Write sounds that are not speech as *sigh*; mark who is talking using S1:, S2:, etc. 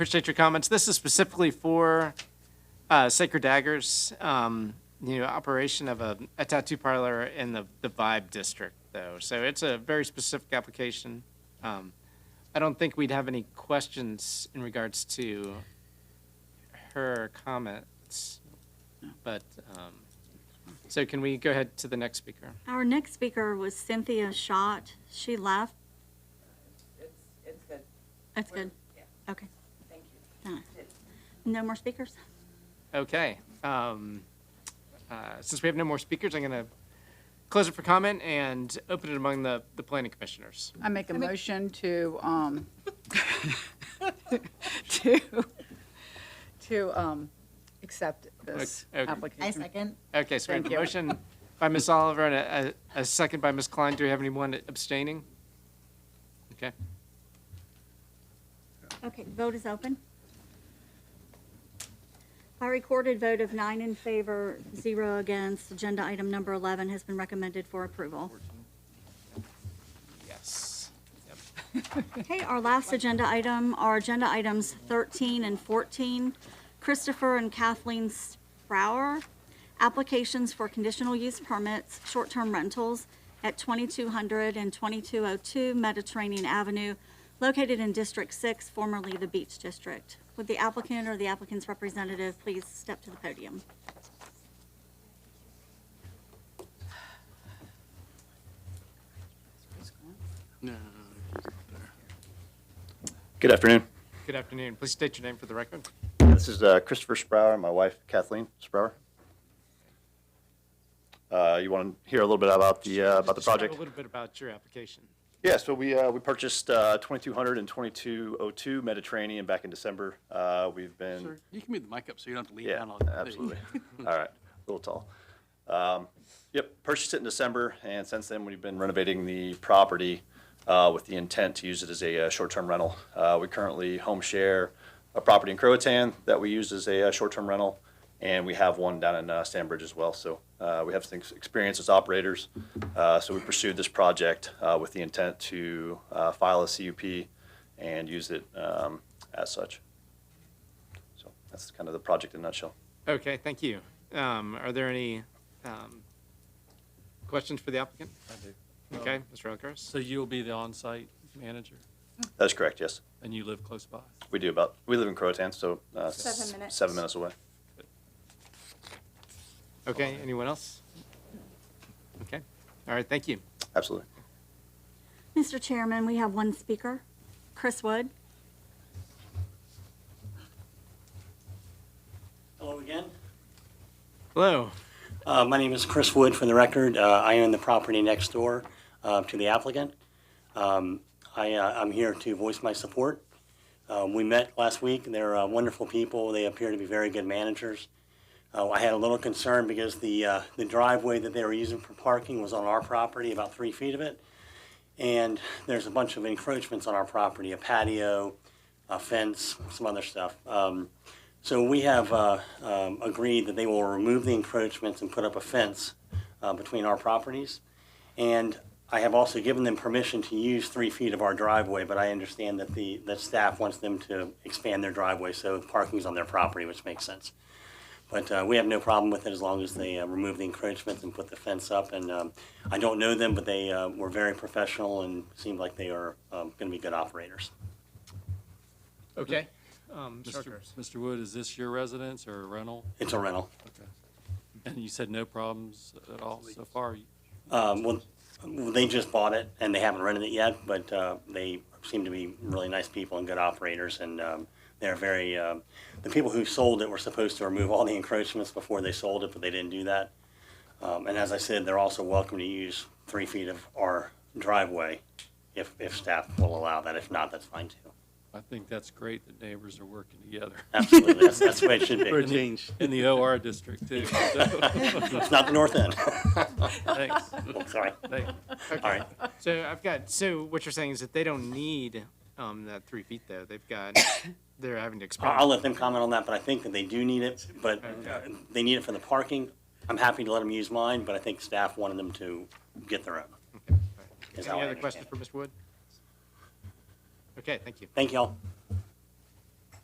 S1: Appreciate your comments. This is specifically for uh, Sacred Daggers, um, you know, operation of a a tattoo parlor in the the Vibe District, though. So it's a very specific application. Um, I don't think we'd have any questions in regards to her comments, but, um, so can we go ahead to the next speaker?
S2: Our next speaker was Cynthia Schott. She left.
S3: It's, it's good,
S2: That's good.
S3: yeah.
S2: Okay.
S3: thank you.
S2: Done. No more speakers?
S1: Okay. Um, uh, since we have no more speakers, I'm going to close it for comment and open it among the, the planning commissioners.
S4: I make a motion to, um, *laughs* to, to, um, accept this
S1: Okay.
S4: application.
S5: I second.
S1: Okay, so we have a
S4: Thank you.
S1: motion by Ms. Oliver and a, a, a second by Ms. Klein. Do we have anyone abstaining? Okay.
S2: Okay, vote is open. By recorded vote of nine in favor, zero against, agenda item number 11 has been recommended for approval.
S1: Yes. Yep.
S2: Okay, our last agenda item are agenda items 13 and 14. Christopher and Kathleen Sprower, applications for conditional use permits, short-term rentals at 2200 and 2202 Mediterranean Avenue, located in District 6, formerly the Beach District. Would the applicant or the applicant's representative please step to the podium?
S6: Good afternoon.
S1: Good afternoon. Please state your name for the record.
S6: This is uh, Christopher Sprower and my wife Kathleen Sprower. Uh, You want to hear a little bit about the, uh, about the
S1: Describe
S6: project?
S1: A little bit about your application.
S6: Yeah, so we, uh, we purchased uh, 2200 and 2202 Mediterranean back in December. Uh, We've been.
S7: Sir, you can move the mic up so you don't have to lean
S6: Yeah,
S7: down all the time.
S6: absolutely. All right, a little tall. Um, Yep, purchased it in December, and since then, we've been renovating the property uh, with the intent to use it as a uh, short-term rental. Uh, We currently home share a property in Croatan that we use as a uh, short-term rental, and we have one down in uh, Stanbridge as well. So uh, we have some experience as operators, Uh, so we pursued this project uh, with the intent to uh, file a CUP and use it um, as such. So that's kind of the project in a nutshell.
S1: Okay, thank you. Um, are there any, um, questions for the applicant? Okay, Mr. Elkhurst?
S7: So you'll be the on-site manager,
S6: That's correct, yes.
S7: and you live close by.
S6: We do about, we live in Croatan, so uh,
S5: Seven
S6: s-
S5: minutes.
S6: Seven minutes away.
S1: Okay, anyone else? Okay, all right, thank you.
S6: Absolutely.
S2: Mr. Chairman, we have one speaker, Chris Wood.
S8: Hello again.
S1: Hello.
S8: Uh, My name is Chris Wood, for the record. Uh, I own the property next door uh, to the applicant. Um, I, uh, I'm here to voice my support. Um, We met last week. They're uh, wonderful people. They appear to be very good managers. Uh, I had a little concern because the uh, the driveway that they were using for parking was on our property, about three feet of it. And there's a bunch of encroachments on our property, a patio, a fence, some other stuff. Um, so we have uh, um, agreed that they will remove the encroachments and put up a fence uh, between our properties. And I have also given them permission to use three feet of our driveway, but I understand that the, that staff wants them to expand their driveway, so parking's on their property, which makes sense. But uh, we have no problem with it as long as they uh, remove the encroachments and put the fence up. And um, I don't know them, but they uh, were very professional and seemed like they are um, going to be good operators.
S1: Okay. Um, Mr.
S7: Mr.
S1: Elkhurst.
S7: Mr. Wood, is this your residence or a rental?
S8: It's a rental.
S7: And you said no problems at all so far?
S8: Um, well, they just bought it and they haven't rented it yet, but uh, they seem to be really nice people and good operators. And um, they're very, um the people who sold it were supposed to remove all the encroachments before they sold it, but they didn't do that. Um, and as I said, they're also welcome to use three feet of our driveway if, if staff will allow that. If not, that's fine too.
S7: I think that's great that neighbors are working together.
S8: Absolutely. That's, that's the way it should be.
S7: change. *laughs* In the OR district, too. So,
S8: It's not the north end.
S7: *laughs*
S8: *laughs*
S7: Thanks.
S8: Sorry.
S7: Thank you.
S8: All right.
S1: So I've got, so what you're saying is that they don't need, um, that three feet though. They've got, *coughs* they're having to
S8: I- I'll
S1: expand.
S8: let them comment on that, but I think that they do need it, but uh, they need it for the parking. I'm happy to let them use mine, but I think staff wanted them to get their own. is how
S1: Any
S8: I
S1: other
S8: understand
S1: questions
S8: it.
S1: for Mr. Wood? Okay, thank you.
S8: Thank y'all.